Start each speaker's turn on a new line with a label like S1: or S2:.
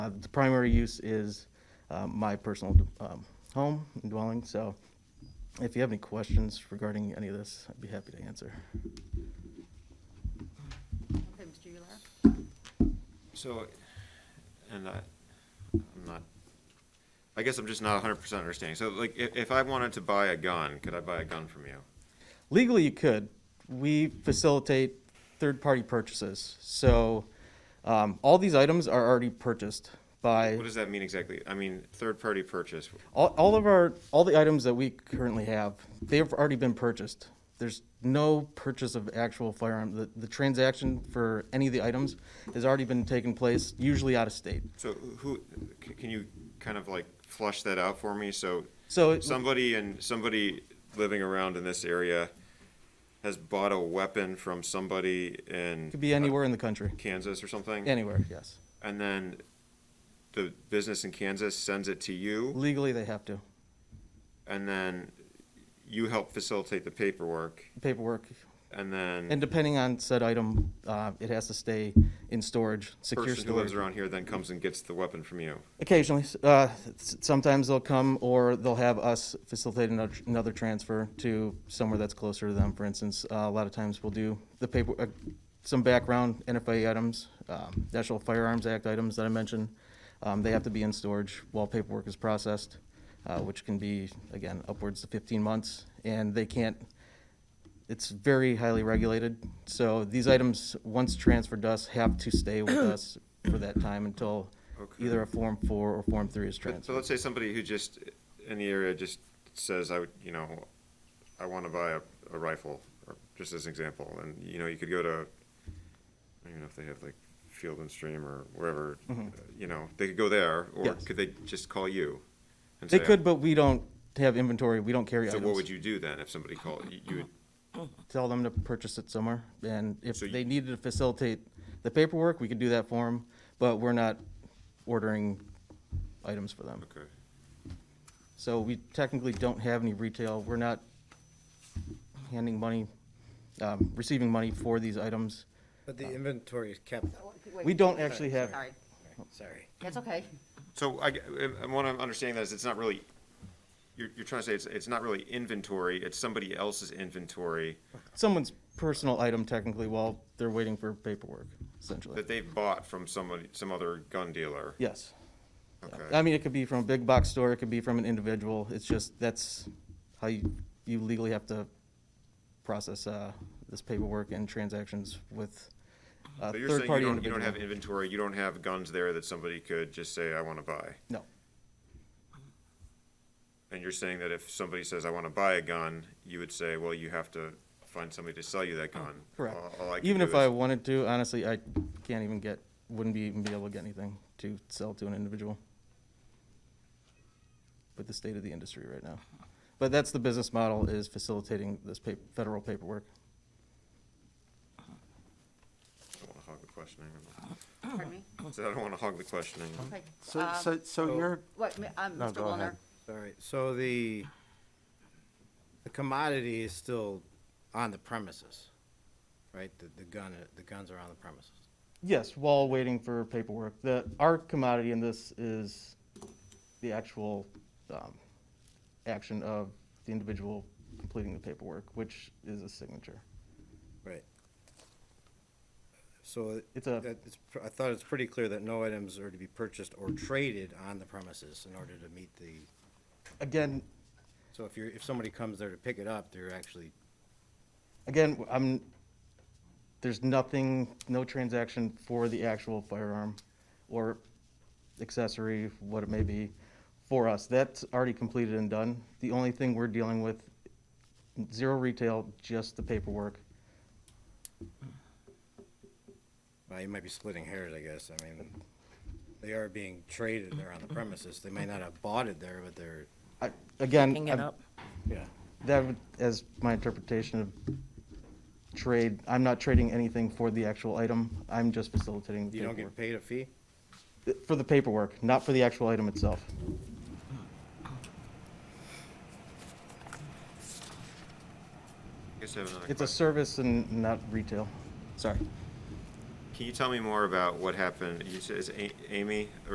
S1: Uh, The primary use is uh, my personal um, home and dwelling, so if you have any questions regarding any of this, I'd be happy to answer.
S2: Okay, Mr. Ular?
S3: So, and I, I'm not, I guess I'm just not hundred percent understanding. So like, if, if I wanted to buy a gun, could I buy a gun from you?
S1: Legally, you could. We facilitate third-party purchases, so um, all these items are already purchased by,
S3: What does that mean exactly? I mean, third-party purchase,
S1: all all of our, all the items that we currently have, they've already been purchased. There's no purchase of actual firearm. The the transaction for any of the items has already been taking place, usually out of state.
S3: so who, c- can you kind of like flush that out for me? So
S1: So it-
S3: somebody and, somebody living around in this area has bought a weapon from somebody in
S1: Could be anywhere in the country,
S3: Kansas or something?
S1: anywhere, yes.
S3: And then the business in Kansas sends it to you?
S1: Legally, they have to.
S3: and then you help facilitate the paperwork,
S1: Paperwork,
S3: and then
S1: and depending on said item, uh, it has to stay in storage,
S3: the
S1: secure
S3: person who lives
S1: storage.
S3: around here then comes and gets the weapon from you.
S1: Occasionally, s- uh, s- sometimes they'll come or they'll have us facilitate another, another transfer to somewhere that's closer to them. For instance, uh, a lot of times we'll do the paper, uh, some background NFA items, um, National Firearms Act items that I mentioned. Um, they have to be in storage while paperwork is processed, uh, which can be, again, upwards to fifteen months. And they can't, it's very highly regulated. So these items, once transferred to us, have to stay with us for that time until
S3: Okay.
S1: either a Form 4 or Form 3 is
S3: So
S1: transferred.
S3: let's say somebody who just in the area just says, "I would, you know, I want to buy a, a rifle," or just as an example, and you know, you could go to, I don't even know if they have like Field and Stream or wherever, uh, you know, they could go there, or
S1: Mm-hmm. Yes.
S3: could they just call you? And
S1: They
S3: say,
S1: could, but we don't have inventory, we don't carry
S3: So what would
S1: items.
S3: you do then if somebody called you? you would,
S1: Tell them to purchase it somewhere, and if
S3: So you-
S1: they needed to facilitate the paperwork, we could do that for them, but we're not ordering items for them.
S3: okay.
S1: So we technically don't have any retail, we're not handing money, um, receiving money for these items.
S4: But the inventory is kept,
S1: We don't actually have-
S2: Sorry,
S4: sorry.
S2: that's okay.
S3: So I, g- I- what I'm understanding that is it's not really, you're, you're trying to say it's, it's not really inventory, it's somebody else's inventory
S1: Someone's personal item technically while they're waiting for paperwork, essentially.
S3: that they've bought from somebody, some other gun dealer.
S1: Yes. I
S3: Okay.
S1: mean, it could be from a big box store, it could be from an individual, it's just, that's how you, you legally have to process, uh, this paperwork and transactions with a
S3: So you're saying you
S1: third-party
S3: don't, you
S1: individual.
S3: don't have inventory, you don't have guns there that somebody could just say, I wanna buy?
S1: No,
S3: And you're saying that if somebody says, I wanna buy a gun, you would say, well, you have to find somebody to sell you that gun?
S1: Oh, correct.
S3: All- all Oh, I can
S1: Even
S3: do
S1: if I
S3: is-
S1: wanted to, honestly, I can't even get, wouldn't be, even be able to get anything to sell to an individual. With the state of the industry right now. But that's the business model, is facilitating this pa- federal paperwork.
S3: I don't wanna hog the questioning.
S2: Pardon me?
S3: So I don't wanna hog the questioning.
S2: Okay.
S5: So,
S2: Um,
S5: so, so you're,
S2: What, mi- um,
S5: No,
S2: Mr.
S5: go
S2: Wallner?
S5: ahead.
S4: Oh, Sorry, so the, the commodity is still on the premises, right? The, the gun, the guns are on the premises.
S1: Yes, while waiting for paperwork. The, our commodity in this is the actual um, action of the individual completing the paperwork, which is a signature.
S4: Right. So
S1: It's a-
S4: that- it's pr- I thought it's pretty clear that no items are to be purchased or traded on the premises in order to meet the,
S1: Again,
S4: so if you're, if somebody comes there to pick it up, they're actually,
S1: again, I'm, there's nothing, no transaction for the actual firearm or accessory, what it may be, for us. That's already completed and done. The only thing we're dealing with, zero retail, just the paperwork.
S4: well, you might be splitting hairs, I guess. I mean, they are being traded there on the premises. They may not have bought it there, but they're,
S1: I- Again.
S6: Picking it
S1: I'm-
S6: up.
S4: yeah.
S1: That would, as my interpretation of trade, I'm not trading anything for the actual item. I'm just facilitating the
S4: You don't
S1: paperwork.
S4: get paid a fee?
S1: For the paperwork, not for the actual item itself.
S3: I guess I have another
S1: It's a
S3: question.
S1: service and not retail. Sorry.
S3: Can you tell me more about what happened? You said it's A- Amy